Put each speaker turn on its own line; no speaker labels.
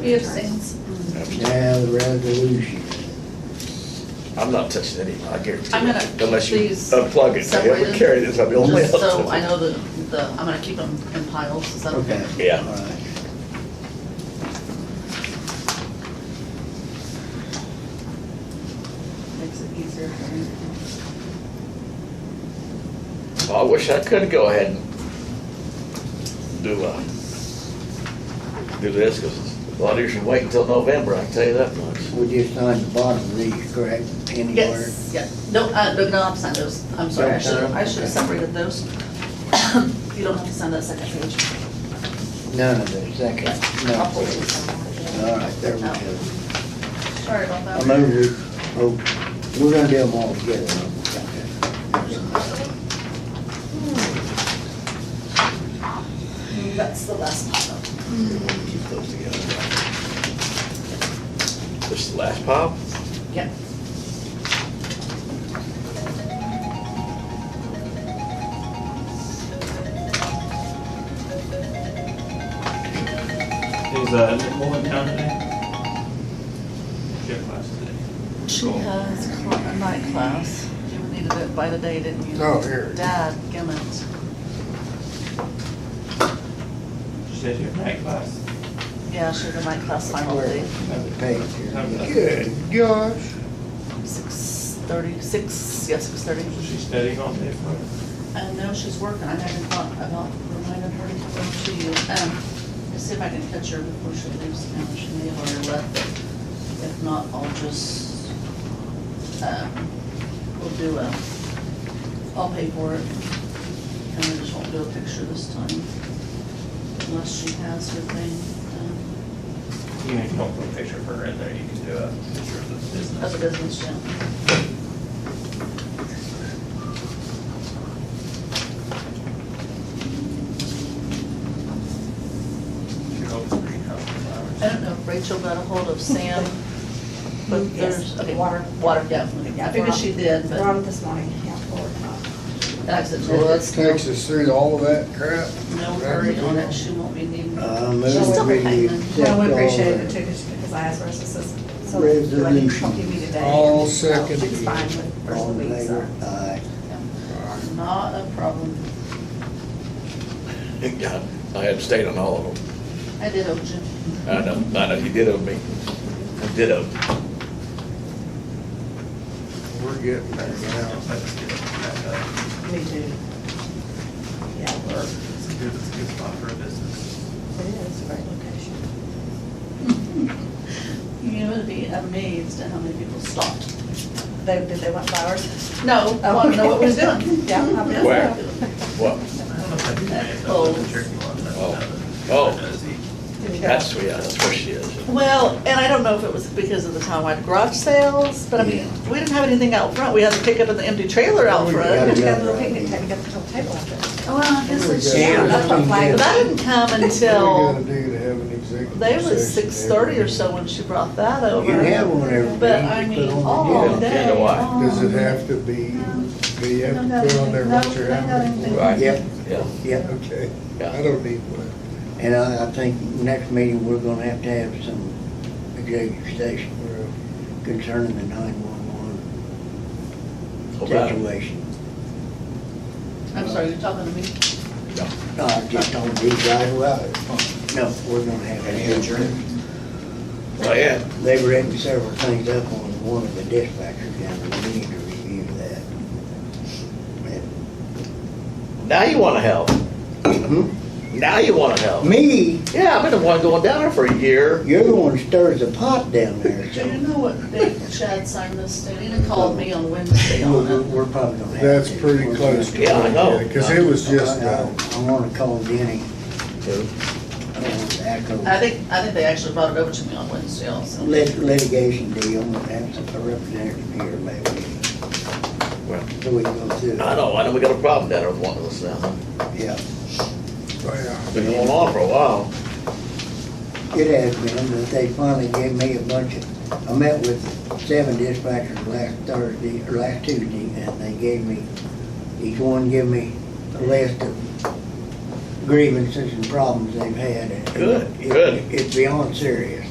He abstains.
Now, the resolution.
I'm not touching any, I guarantee
I'm gonna
it, unless you
keep these
unplug it, so whoever
separated,
carried this, I'll be only.
Just so I know the, the, I'm gonna keep them in piles, is that okay?
Okay.
Yeah.
All right.
Makes it easier for me.
Oh, I wish I could go ahead and do, uh, do this, cause a lot of you should wait until November, I can tell you that much.
We just signed the bottom of these, correct? Penny work.
Yes, yeah, no, uh, no, no, I'm signing those, I'm sorry, I should, I should have separated those. You don't have to sign that second page.
None of the second, no.
I'll forward it somewhere.
All right, there we go.
Sorry about
I
that.
move it, oh, we're gonna do them all together.
That's the last pile.
Keep those together. This is the last pop?
Yeah.
Is uh, Nick Mullen down today? She had class today.
She
Cool.
has cla- a night class. You needed it by the day, didn't you?
Oh, here.
Dad, Gimmett.
She said she had night class.
Yeah, she had a night class final day,
Another page here.
Good
gosh.
six thirty, six, yeah, six thirty.
So she's studying all day for it.
I know Uh, she's working. I haven't thought about reminding her to come over to you. Um, let's see if I can catch her before she leaves town. She may have already left, but if not, I'll just, um, we'll do a, I'll pay for it. And I just won't do a picture this time unless she has her thing, um,
Even if you don't put a picture of her in there, you can do a picture of
um,
the
of
business.
the business gym.
She hopes to bring out flowers.
I don't know if Rachel got a hold of Sam, but
Yes,
there's, okay,
water.
water, yeah. I figured she did, but.
We're on it this morning, yeah, forward.
And I said,
So
no,
that
it's no,
takes us through all of that crap?
no hurry on it, she won't be needing.
I
She's
move
still
we
hanging.
accept
Well,
all
we appreciate it
the-
too, just because I asked her, so says, so do I need to help you
Resolution.
today?
All
So
second.
She's fine with first
All
of the
in
week, so.
favor? Aye.
Not a problem.
Yeah, I abstained on all of them.
I did owe Jim.
I know, I know, you did owe me. I did owe.
We're getting there now.
That's good. That's, uh,
Me too. Yeah,
Oh.
we're, it
It's a good, it's a good spot for a
is
business.
a great location.
You would be amazed at how many people stopped. Oh.
They, did they want flowers?
No, I want to know what we're doing.
Yeah, I bet.
Where? What?
I don't know if I'd be mad
Oh.
about the turkey one, that's
Oh.
another.
Oh.
Did you go?
That's, yeah, that's where she is.
Well, and I don't know if it was because of the townwide garage sales, but I mean, we didn't have anything out front. We had to pick up an empty trailer out
We
front.
got
Did you go to
another
the picnic,
idea.
table? you got the whole table out there?
Well, I guess it's
Here we go.
true.
That's what
But
flagged.
that didn't come
What
until,
we gotta do to have an executive
they was
session
six thirty or
every-
so when she brought that
You
over.
can have one every week.
But I
you
mean, oh,
put on the
all
agenda.
day
Yeah, why?
long.
Does it have to be, do you have to put on there what you're having?
Right.
Yep,
Yeah,
yep.
Okay,
Yeah.
I don't need one.
And I, I think next meeting, we're gonna have to have some executive station concerning the nine-one-one
hold on.
situation.
I'm sorry, you're talking to me?
Uh, just on these guys, well, no, we're gonna have an
Oh, yeah.
They've written several things up on one of the dispatchers, and we need to review that. And-
Now you wanna help. Hmm? Now you wanna help.
Me,
Yeah, I've been the one going down there for a year.
you're the one who stirs the pot down there,
Do
so.
you know what date Chad signed this to? He called me on Wednesday on
We're,
it.
we're probably gonna have.
That's
to-
pretty close to.
Yeah, I know.
Because it was just,
I-
uh,
I I wanna call Denny, uh, Echo.
I think, I think they actually brought it over to me on Wednesday also.
Lit- Litigation deal, and have a representative here maybe,
Well,
so we can go through. it.
I know, I know we got a problem down there with one of us now.
Yeah,
yeah.
Been going on for a while.
it has been, but they finally gave me a bunch of, I met with seven dispatchers last Thursday, or last Tuesday, and they gave me, each one gave me a list of grievances and problems they've had. and it-
Good, good.
it- It's beyond serious.